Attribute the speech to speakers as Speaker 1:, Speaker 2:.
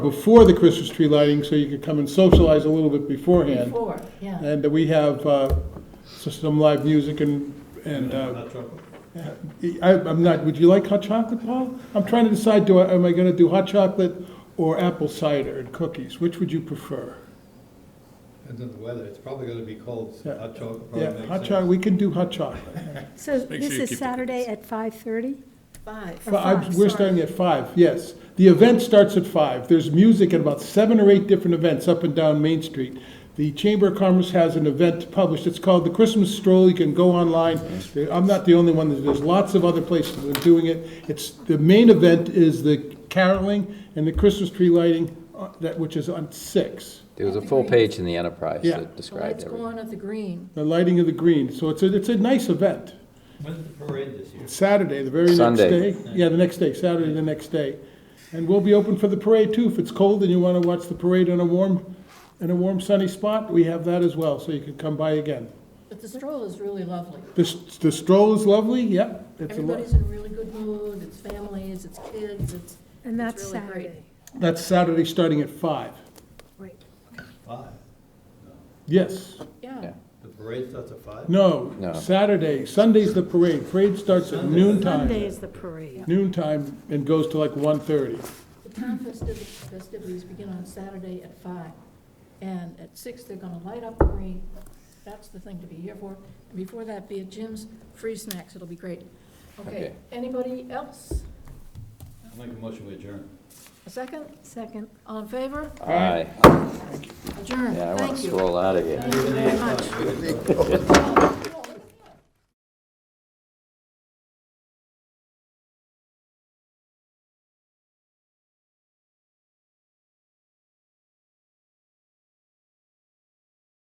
Speaker 1: before the Christmas tree lighting, so you could come and socialize a little bit beforehand.
Speaker 2: Before, yeah.
Speaker 1: And we have uh, some live music and, and uh,
Speaker 3: Hot chocolate.
Speaker 1: I, I'm not, would you like hot chocolate, Paul? I'm trying to decide, do I, am I gonna do hot chocolate or apple cider and cookies? Which would you prefer?
Speaker 3: Depends on the weather, it's probably gonna be cold, so
Speaker 1: Yeah.
Speaker 3: hot chocolate probably
Speaker 1: Yeah,
Speaker 3: makes
Speaker 1: hot
Speaker 3: sense.
Speaker 1: chocolate, we can do hot chocolate.
Speaker 4: So
Speaker 5: make sure
Speaker 4: this
Speaker 5: you
Speaker 4: is
Speaker 5: keep the
Speaker 4: Saturday at 5:30?
Speaker 2: Five.
Speaker 4: Or
Speaker 1: Fi- I'm-
Speaker 4: five,
Speaker 1: We're
Speaker 4: sorry.
Speaker 1: starting at five, yes. The event starts at five. There's music at about seven or eight different events up and down Main Street. The Chamber of Commerce has an event published, it's called the Christmas Stroll, you can go online. There- I'm not the only one, There's- there's lots of other places that are doing it. It's, the main event is the caroling and the Christmas tree lighting, uh, that, which is on six.
Speaker 6: There was a full page in the Enterprise
Speaker 1: Yeah.
Speaker 6: that
Speaker 2: The
Speaker 6: described
Speaker 2: lights go
Speaker 6: everything.
Speaker 2: on at the green.
Speaker 1: The lighting of the green, so it's a, it's a nice event.
Speaker 3: When's the parade this year?
Speaker 1: Saturday, the very next
Speaker 6: Sunday.
Speaker 1: day. Yeah, the next day, Saturday, the next day. And we'll be open for the parade too. If it's cold and you want to watch the parade in a warm, in a warm sunny spot, we have that as well, so you can come by again.
Speaker 2: But the stroll is really lovely.
Speaker 1: The, s- the stroll is lovely, yep. It's a lo-
Speaker 2: Everybody's in a really good mood, it's families, it's kids, it's,
Speaker 4: And that's
Speaker 2: It's really great.
Speaker 4: Saturday.
Speaker 1: That's Saturday, starting at five.
Speaker 4: Right.
Speaker 3: Five.
Speaker 1: Yes,
Speaker 2: yeah.
Speaker 6: Yeah.
Speaker 3: The parade starts at five?
Speaker 1: no,
Speaker 6: No.
Speaker 1: Saturday, Sunday's the parade. Parade starts at
Speaker 3: Sunday.
Speaker 1: noon
Speaker 4: Monday
Speaker 1: time.
Speaker 4: is the parade.
Speaker 1: Noon time and goes to like one thirty.
Speaker 2: The town festivities, festivities begin on Saturday at five. And at six, they're gonna light up the green. That's the thing to be here for. And before that, be at Jim's, free snacks, it'll be great. Okay,
Speaker 6: Okay.
Speaker 2: anybody else?
Speaker 3: I'll make a motion we adjourn.
Speaker 2: A second?
Speaker 4: Second.
Speaker 2: All in favor?
Speaker 6: Aye.
Speaker 2: Adjourn.
Speaker 6: Yeah, I want
Speaker 2: Thank
Speaker 6: to
Speaker 2: you.
Speaker 6: stroll out of here.
Speaker 2: Thank you very much.